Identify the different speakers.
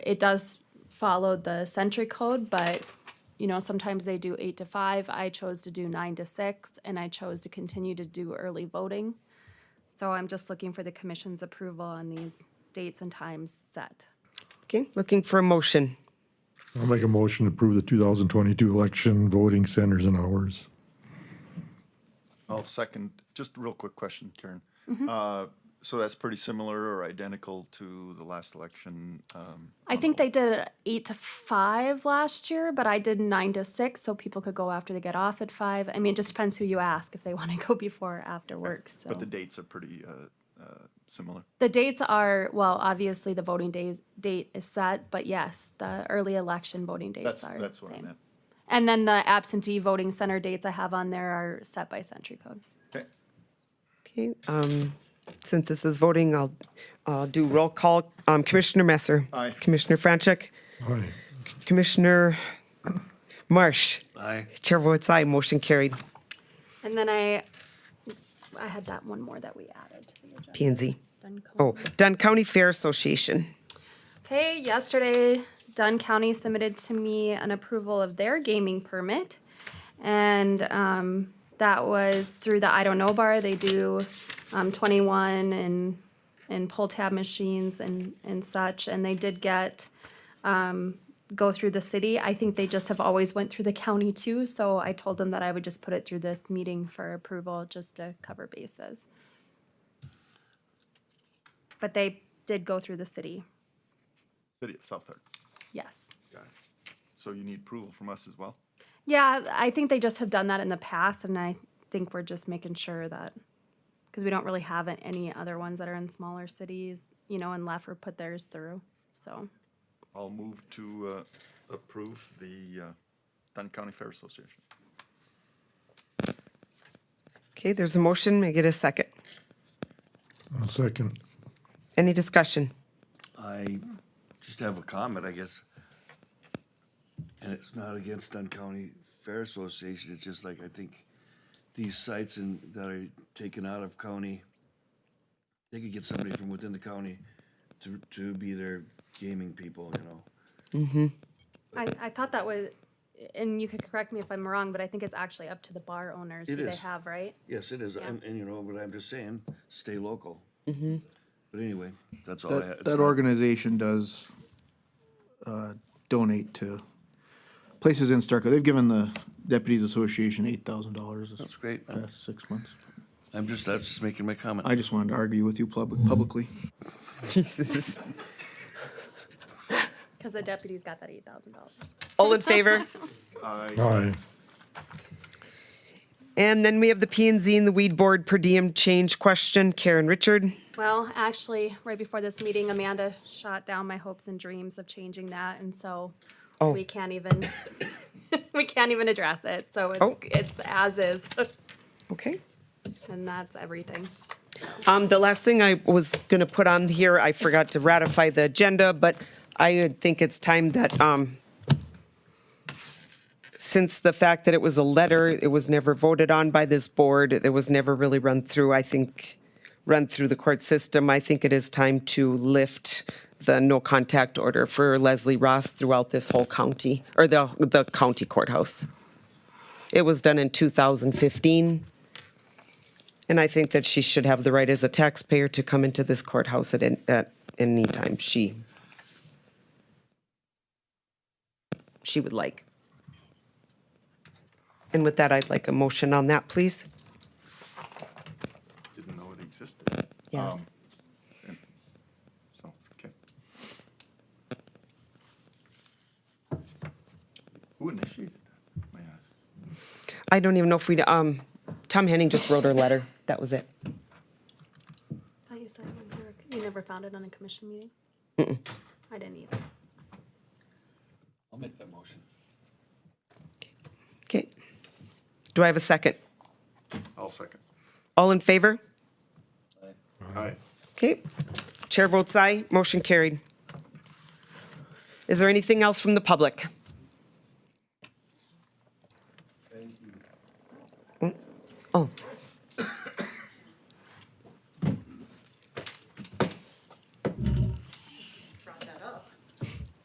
Speaker 1: it does follow the century code, but you know, sometimes they do eight to five. I chose to do nine to six and I chose to continue to do early voting. So I'm just looking for the commission's approval on these dates and times set.
Speaker 2: Okay, looking for a motion.
Speaker 3: I'll make a motion to approve the 2022 election voting centers and hours.
Speaker 4: I'll second, just a real quick question, Karen.
Speaker 1: Mm-hmm.
Speaker 4: Uh, So that's pretty similar or identical to the last election. um,
Speaker 1: I think they did eight to five last year, but I did nine to six, so people could go after they get off at five. I mean, it just depends who you ask if they want to go before or after work. So
Speaker 4: But the dates are pretty uh, uh, similar.
Speaker 1: the Oh. dates are well, obviously the voting days date is set, but yes, the early election voting dates
Speaker 4: That's,
Speaker 1: are
Speaker 4: that's
Speaker 1: the
Speaker 4: what I
Speaker 1: same.
Speaker 4: meant.
Speaker 1: And then the absentee voting center dates I have on there are set by century code.
Speaker 4: Okay.
Speaker 2: Okay, um, since this is voting, I'll, I'll do roll call. Um, Commissioner Messer.
Speaker 4: Aye.
Speaker 2: Commissioner Franchek.
Speaker 3: Aye.
Speaker 2: Commissioner Marsh.
Speaker 5: Aye.
Speaker 2: Chair votes aye, motion carried.
Speaker 1: And then I, I had that one more that we added to the agenda.
Speaker 2: P and Z.
Speaker 1: Duncombe.
Speaker 2: Oh, Dunn County Fair Association.
Speaker 1: Okay, yesterday, Dunn County submitted to me an approval of their gaming permit. And um, that was through the I Don't Know Bar. They do um, 21 and, and pull tab machines and, and such. And they did get, um, go through the city. I think they just have always went through the county too. So I told them that I would just put it through this meeting for approval, just to cover bases. But they did go through the city.
Speaker 4: City of South Park.
Speaker 1: Yes.
Speaker 4: Got it. So you need approval from us as well?
Speaker 1: Yeah, I think they just have done that in the past, and I think we're just making sure that because we don't really have a- any other ones that are in smaller cities, you know, and Leffler put theirs through. So
Speaker 4: I'll move to uh, approve the uh, Dunn County Fair Association.
Speaker 2: Okay, there's a motion, may I get a second?
Speaker 3: I'll second.
Speaker 2: Any discussion?
Speaker 5: I just have a comment, I guess. And it's not against Dunn County Fair Association, it's just like, I think these sites and that are taken out of county, they could get somebody from within the county to, to be their gaming people, you know?
Speaker 1: I, I thought that was, and you could correct me if I'm wrong, but I think it's actually up to the bar owners
Speaker 5: It
Speaker 1: who they
Speaker 5: is.
Speaker 1: have, right?
Speaker 5: Yes, it is, and, and you know, but I'm just saying, stay local. But anyway, that's all I had.
Speaker 6: That, that organization does uh, donate to places in Starkville. They've given the Deputies Association eight thousand dollars this
Speaker 5: It's great, I'm-
Speaker 6: past six months.
Speaker 5: I'm just, that's just making my comment.
Speaker 6: I just wanted to argue with you public, publicly.
Speaker 2: Jesus.
Speaker 1: Because the deputy's got that eight thousand dollars.
Speaker 2: All in favor?
Speaker 3: Aye.
Speaker 2: And then we have the P and Z and the Weed Board per diem change question. Karen Richard.
Speaker 1: Well, actually, right before this meeting, Amanda shot down my hopes and dreams of changing that, and so
Speaker 2: Oh.
Speaker 1: we can't even we can't even address it. So it's
Speaker 2: Oh.
Speaker 1: it's as is,
Speaker 2: Okay.
Speaker 1: and that's everything.
Speaker 2: Um, the last thing I was gonna put on here, I forgot to ratify the agenda, but I would think it's time that, um, since the fact that it was a letter, it was never voted on by this board, it was never really run through, I think, run through the court system, I think it is time to lift the no contact order for Leslie Ross throughout this whole county, or the, the county courthouse. It was done in 2015. And I think that she should have the right as a taxpayer to come into this courthouse at, an- at any time she she would like. And with that, I'd like a motion on that, please.
Speaker 4: Didn't know it existed.
Speaker 2: Yeah.
Speaker 4: Um, and So, okay. Who initiated that? May I ask?
Speaker 2: I don't even know if we, um, Tom Henning just wrote her letter. That was it.
Speaker 1: Thought you said you never, you never found it on a commission meeting. I didn't either.
Speaker 5: I'll make that motion.
Speaker 2: Okay. Do I have a second?
Speaker 4: I'll second.
Speaker 2: All in favor?
Speaker 4: Aye.
Speaker 2: Okay. Chair votes aye. Motion carried. Is there anything else from the public? Mm. Oh.